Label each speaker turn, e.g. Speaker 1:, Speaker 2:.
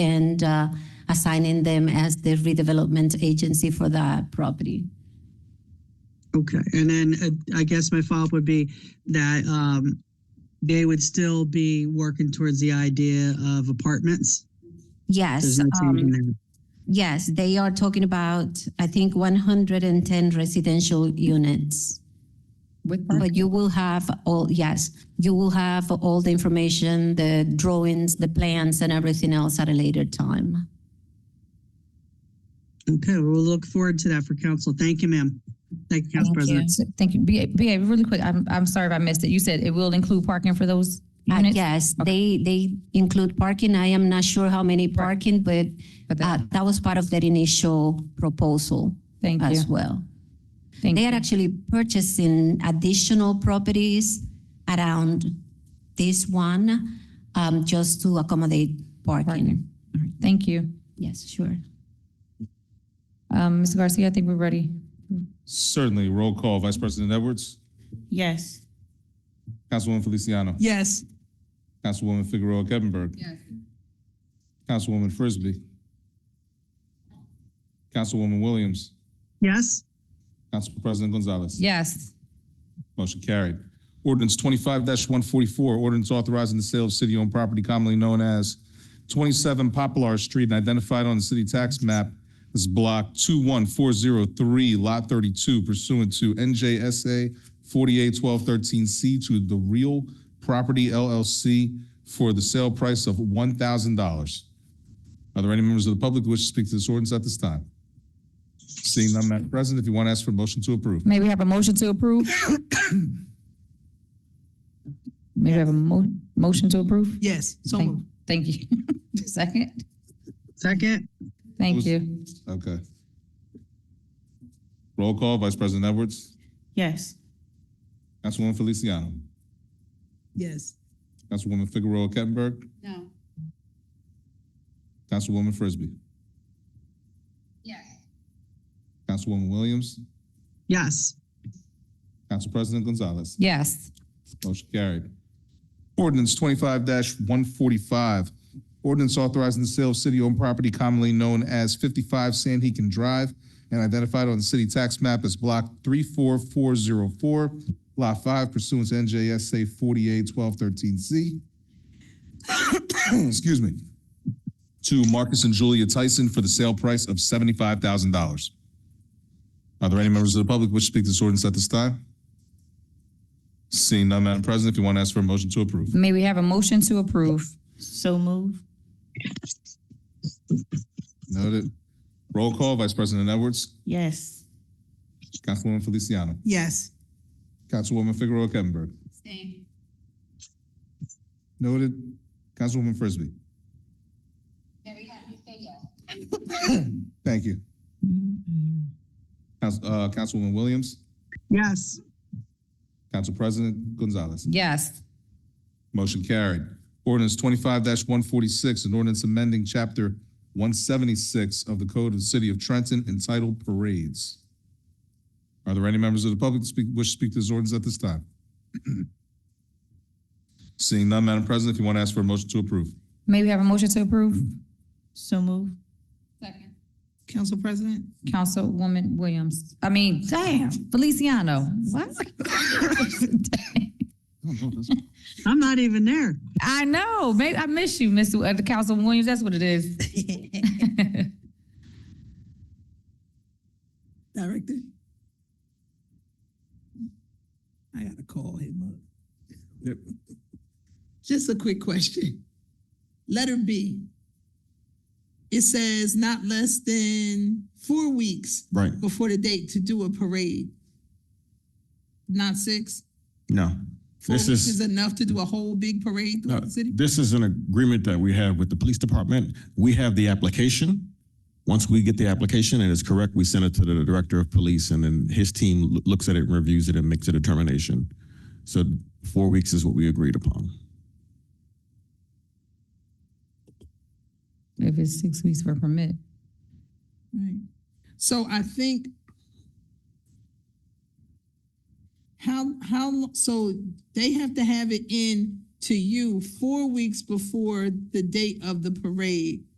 Speaker 1: and uh, assigning them as the redevelopment agency for the property.
Speaker 2: Okay, and then uh, I guess my follow-up would be that um, they would still be working towards the idea of apartments? There's
Speaker 1: Yes,
Speaker 2: no change in
Speaker 1: um,
Speaker 2: that.
Speaker 1: yes, they are talking about, I think, 110 residential units.
Speaker 3: With
Speaker 1: But you will have all, yes, you will have all the information, the drawings, the plans, and everything else at a later time.
Speaker 2: Okay, we'll look forward to that for council. Thank you, ma'am. Thank you, Council
Speaker 3: Thank you.
Speaker 2: President.
Speaker 3: Thank you. BA, BA, really quick, I'm, I'm sorry if I missed it. You said it will include parking for those
Speaker 1: Uh,
Speaker 3: units?
Speaker 1: Yes, they, they include parking. I am not sure how many parking, but
Speaker 3: But
Speaker 1: uh,
Speaker 3: that-
Speaker 1: that was part of their initial proposal
Speaker 3: Thank you.
Speaker 1: as well.
Speaker 3: Thank
Speaker 1: They
Speaker 3: you.
Speaker 1: are actually purchasing additional properties around this one, um, just to accommodate parking.
Speaker 3: Parking. All right, Thank you.
Speaker 1: Yes, sure.
Speaker 3: Um, Ms. Garcia, I think we're ready.
Speaker 4: Certainly. Roll call. Vice President Edwards.
Speaker 5: Yes.
Speaker 4: Councilwoman Feliciano.
Speaker 5: Yes.
Speaker 4: Councilwoman Figueroa Kevinberg.
Speaker 5: Yes.
Speaker 4: Councilwoman Frisbee. Councilwoman Williams.
Speaker 2: Yes,
Speaker 4: Council President Gonzalez.
Speaker 3: Yes.
Speaker 4: Motion carried. Ordinance twenty-five one forty-four, ordinance authorizing the sale of city-owned property commonly known as twenty-seven Poplar Street and identified on the city tax map as block two-one-four-zero-three, lot thirty-two pursuant to NJSA forty-eight twelve thirteen C to the Real Property LLC for the sale price of one thousand dollars. Are there any members of the public who wish to speak to this ordinance at this time? Seeing none, Madam President, if you want to ask for a motion to approve.
Speaker 3: May we have a motion to approve? May we have a mo- motion to approve?
Speaker 5: Yes. So
Speaker 3: Thank-
Speaker 5: moved.
Speaker 3: Thank you. Second?
Speaker 2: second?
Speaker 3: Thank
Speaker 4: Was-
Speaker 3: you.
Speaker 4: Okay. Roll call, Vice President Edwards,
Speaker 5: Yes.
Speaker 4: Councilwoman Feliciano,
Speaker 5: Yes.
Speaker 4: Councilwoman Figueroa Kettenberg,
Speaker 5: No.
Speaker 4: Councilwoman Frisbee,
Speaker 3: Yes.
Speaker 4: Councilwoman Williams,
Speaker 2: Yes,
Speaker 4: Council President Gonzalez.
Speaker 3: Yes.
Speaker 4: Motion carried. Ordinance twenty-five one forty-five. Ordinance authorizing the sale of city-owned property commonly known as fifty-five San Hecan Drive and identified on the city tax map as block three-four-four-zero-four, lot five pursuant to NJSA forty-eight twelve thirteen C. Excuse me. To Marcus and Julia Tyson for the sale price of seventy-five thousand dollars. Are there any members of the public which speak to this ordinance at this time? Seeing none, Madam President, if you want to ask for a motion to approve.
Speaker 3: May we have a motion to approve?
Speaker 5: So moved.
Speaker 4: Noted. Roll call, Vice President Edwards,
Speaker 5: Yes.
Speaker 4: Councilwoman Feliciano,
Speaker 5: Yes.
Speaker 4: Councilwoman Figueroa Kettenberg.
Speaker 5: Stay.
Speaker 4: Noted. Councilwoman Frisbee. Thank you. Council, uh, Councilwoman Williams,
Speaker 2: yes,
Speaker 4: Council President Gonzalez.
Speaker 3: Yes.
Speaker 4: Motion carried. Ordinance twenty-five one forty-six, an ordinance amending chapter one seventy-six of the Code of the City of Trenton entitled Parades. Are there any members of the public to speak, wish to speak to this ordinance at this time? Seeing none, Madam President, if you want to ask for a motion to approve.
Speaker 3: May we have a motion to approve?
Speaker 5: So moved. Second. Council President?
Speaker 3: Councilwoman Williams, I mean, damn, Feliciano, what?
Speaker 2: I'm not even there.
Speaker 3: I know, maybe I miss you, Miss uh, the Councilwoman Williams, that's what it is.
Speaker 6: Director. I gotta call him up.
Speaker 4: Yep.
Speaker 6: Just a quick question. Letter B. It says not less than four weeks
Speaker 4: Right,
Speaker 6: before the date to do a parade. Not six?
Speaker 7: No,
Speaker 6: Four
Speaker 7: This
Speaker 6: weeks
Speaker 7: is-
Speaker 6: is enough to do a whole big parade
Speaker 7: no,
Speaker 6: throughout the city?
Speaker 7: this is an agreement that we have with the police department. We have the application. Once we get the application and it's correct, we send it to the director of police and then his team loo- looks at it, reviews it and makes a determination. So four weeks is what we agreed upon.
Speaker 3: If it's six weeks for a permit.
Speaker 6: Right. So I think how how lo- so they have to have it in to you four weeks before the date of the parade.